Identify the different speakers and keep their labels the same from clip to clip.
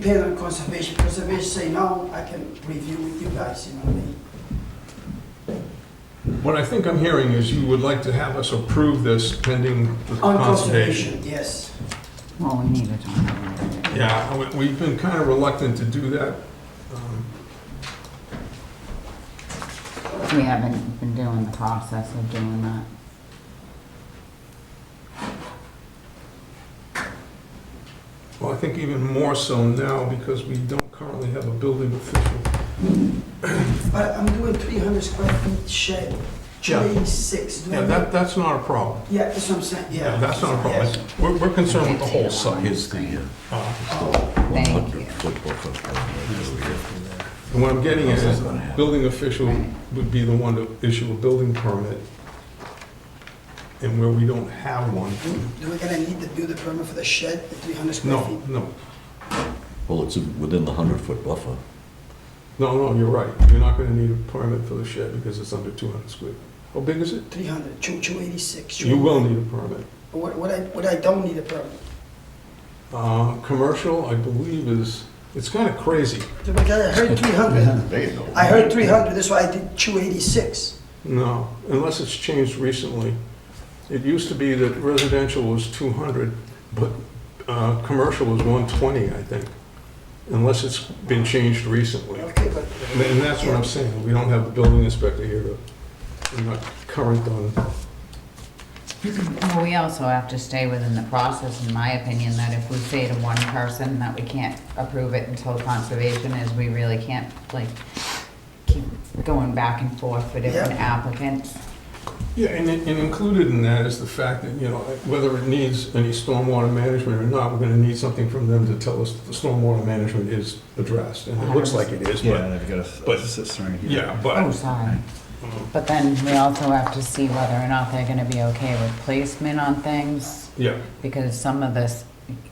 Speaker 1: Depend on conservation, conservation say no, I can review with you guys, you know what I mean?
Speaker 2: What I think I'm hearing is you would like to have us approve this pending the
Speaker 1: On
Speaker 2: conservation.
Speaker 1: conservation, yes.
Speaker 3: Well, we need it on.
Speaker 2: Yeah, we- we've been kind of reluctant to do that. Um,
Speaker 3: We haven't been doing the process of doing that.
Speaker 2: Well, I think even more so now because we don't currently have a building official.
Speaker 1: But I'm doing three hundred square feet shed,
Speaker 2: Yeah.
Speaker 1: twenty-six, do I
Speaker 2: Yeah, that,
Speaker 1: mean?
Speaker 2: that's not a problem.
Speaker 1: Yeah, that's what I'm saying, yeah.
Speaker 2: Yeah, That's not a problem.
Speaker 1: Yes.
Speaker 2: It's- We're, we're concerned with the whole site.
Speaker 4: Here's the uh,
Speaker 2: Uh,
Speaker 1: Oh,
Speaker 3: Thank you.
Speaker 4: 100-foot buffer plan right over here.
Speaker 2: And what I'm getting at is,
Speaker 4: How's that gonna happen?
Speaker 2: building official would be the one to issue a building permit. And where we don't have one,
Speaker 1: Do do we gonna need to do the permit for the shed, the three hundred square
Speaker 2: no,
Speaker 1: feet?
Speaker 2: no,
Speaker 4: Well, it's within the 100-foot buffer.
Speaker 2: no, no, you're right. You're not gonna need a permit for the shed because it's under two hundred square. How big is it?
Speaker 1: Three hundred, two, two eighty-six.
Speaker 2: You will need a permit.
Speaker 1: What, what I, what I don't need a permit,
Speaker 2: Uh, commercial, I believe is, it's kinda crazy.
Speaker 1: because I heard three hundred.
Speaker 4: There you go.
Speaker 1: I heard three hundred, that's why I did two eighty-six.
Speaker 2: No, unless it's changed recently. It used to be that residential was 200, but uh, commercial was 120, I think, unless it's been changed recently. And
Speaker 1: Okay, but
Speaker 2: and that's what I'm saying, we don't have the building inspector here to, we're not current on,
Speaker 3: Well, we also have to stay within the process, in my opinion, that if we say to one person that we can't approve it until conservation is, we really can't, like, keep going back and forth for different
Speaker 1: Yeah.
Speaker 3: applicants.
Speaker 2: yeah, and it- and included in that is the fact that, you know, whether it needs any stormwater management or not, we're gonna need something from them to tell us that the stormwater management is addressed, and it looks like it is,
Speaker 5: Yeah,
Speaker 2: but,
Speaker 5: and I've got a
Speaker 2: but-
Speaker 5: but, sister in here.
Speaker 2: yeah,
Speaker 3: Oh,
Speaker 2: but,
Speaker 3: sorry.
Speaker 1: Mm-hmm.
Speaker 3: But then we also have to see whether or not they're gonna be okay with placement on things.
Speaker 2: yeah.
Speaker 3: because some of this,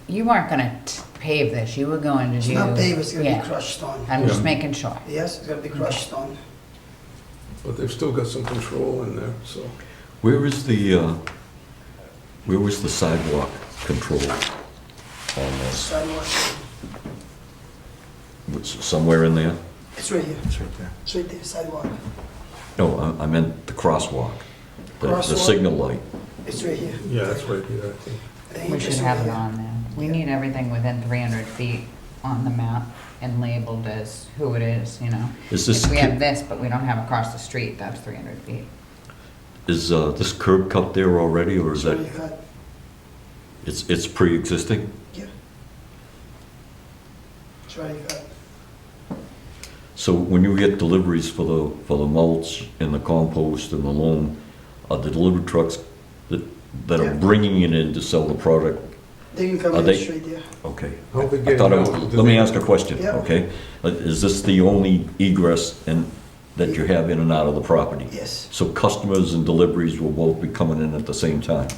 Speaker 3: you weren't gonna t- pave this, you were going to
Speaker 1: it's
Speaker 3: do.
Speaker 1: not paved, it's gonna
Speaker 3: Yeah.
Speaker 1: be crushed stone.
Speaker 3: I'm just
Speaker 2: Yeah.
Speaker 3: making sure.
Speaker 1: Yes, it's gonna be crushed stone.
Speaker 2: But they've still got some control in there, so.
Speaker 4: Where is the, uh, where was the sidewalk control on this?
Speaker 1: Sidewalk,
Speaker 4: Was it Somewhere in there?
Speaker 1: it's right here,
Speaker 5: It's right there.
Speaker 1: it's right there, sidewalk.
Speaker 4: No, I- I meant the crosswalk, the- the
Speaker 1: Crosswalk?
Speaker 4: signal light.
Speaker 1: It's right here.
Speaker 2: Yeah, that's right here, I think.
Speaker 1: I think
Speaker 3: We
Speaker 1: it's
Speaker 3: should
Speaker 1: right
Speaker 3: have it
Speaker 1: here.
Speaker 3: on there. We
Speaker 1: Yeah.
Speaker 3: need everything within three hundred feet on the map and labeled as who it is, you know?
Speaker 4: Is this,
Speaker 3: If we have
Speaker 4: cu-
Speaker 3: this, but we don't have across the street, that's three hundred feet.
Speaker 4: is uh, this curb cut there already, or is
Speaker 1: So you
Speaker 4: that,
Speaker 1: got-
Speaker 4: it's, it's pre-existing?
Speaker 1: Yeah. It's right here.
Speaker 4: So when you get deliveries for the, for the mulch and the compost and the loam, are the delivery trucks that, that
Speaker 1: Yeah.
Speaker 4: are bringing it in to sell the product?
Speaker 1: They can come
Speaker 4: Are
Speaker 1: in
Speaker 4: they-
Speaker 1: straight there.
Speaker 4: Okay.
Speaker 2: How they
Speaker 4: I
Speaker 2: get
Speaker 4: thought I
Speaker 2: it
Speaker 4: would-
Speaker 2: out?
Speaker 4: let me ask a question,
Speaker 1: Yeah.
Speaker 4: okay? Uh, Is this the only egress and, that you have in and out of the property?
Speaker 1: Yes.
Speaker 4: So customers and deliveries will both be coming in at the same time?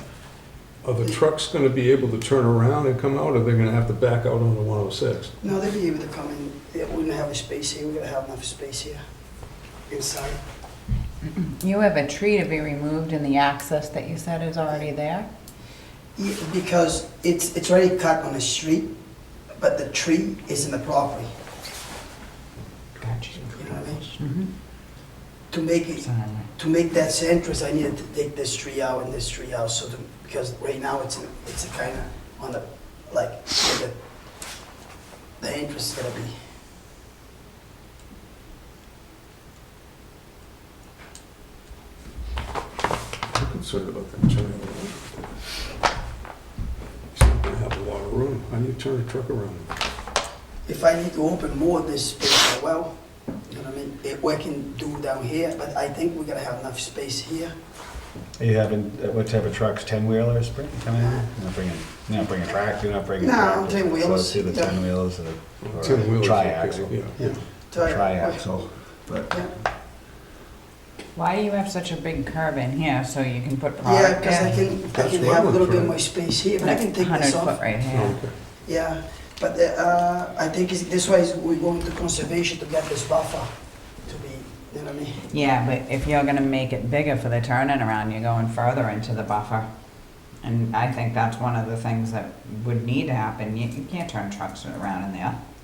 Speaker 2: Are the trucks gonna be able to turn around and come out, or they're gonna have to back out onto 106?
Speaker 1: No, they'll be able to come in. They wouldn't have a space here. We're gonna have enough space here inside.
Speaker 3: You have a tree to be removed and the access that you said is already there?
Speaker 1: Yeah, Because it's, it's already cut on the street, but the tree is in the property,
Speaker 3: Gotcha.
Speaker 1: you know what I mean?
Speaker 3: Mhm.
Speaker 1: To make it,
Speaker 3: So then-
Speaker 1: to make that entrance, I needed to take this tree out and this tree out, so to, because right now it's, in- it's kind of on the, like, where the, the entrance is gonna be.
Speaker 2: I'm concerned about that turning around. He's not gonna have a lot of room. How do you turn a truck around?
Speaker 1: If I need to open more of this space as well, you know what I mean, it, we can do down here, but I think we're gonna have enough space here.
Speaker 5: Are you having, uh, what type of trucks, ten wheelers, bring, come in? You're not bringing, you're not bringing a tractor, you're not bringing. a
Speaker 1: No,
Speaker 5: tractor.
Speaker 1: 10-wheelers,
Speaker 5: So let's see the
Speaker 1: yeah.
Speaker 5: ten wheelers or
Speaker 2: Ten
Speaker 5: or
Speaker 2: wheelers,
Speaker 5: tri-axle,
Speaker 2: okay,
Speaker 1: Yeah.
Speaker 2: Yeah.
Speaker 5: tri-axle. But
Speaker 1: Yeah,
Speaker 3: Why do you have such a big curb in here so you can put
Speaker 1: Yeah,
Speaker 3: product in?
Speaker 1: because I can, I
Speaker 2: That's
Speaker 1: can
Speaker 2: what I
Speaker 1: have a
Speaker 2: was
Speaker 1: little bit
Speaker 2: trying-
Speaker 1: more space here, but I can take this
Speaker 3: Hundred foot
Speaker 1: off.
Speaker 3: right here.
Speaker 2: Okay.
Speaker 1: Yeah, but, uh, I think it's, this way is we're going to conservation to get this buffer to be, you know what I mean?
Speaker 3: Yeah, but if you're gonna make it bigger for the turning around, you're going further into the buffer. And I think that's one of the things that would need to happen. You, you can't turn trucks around in there.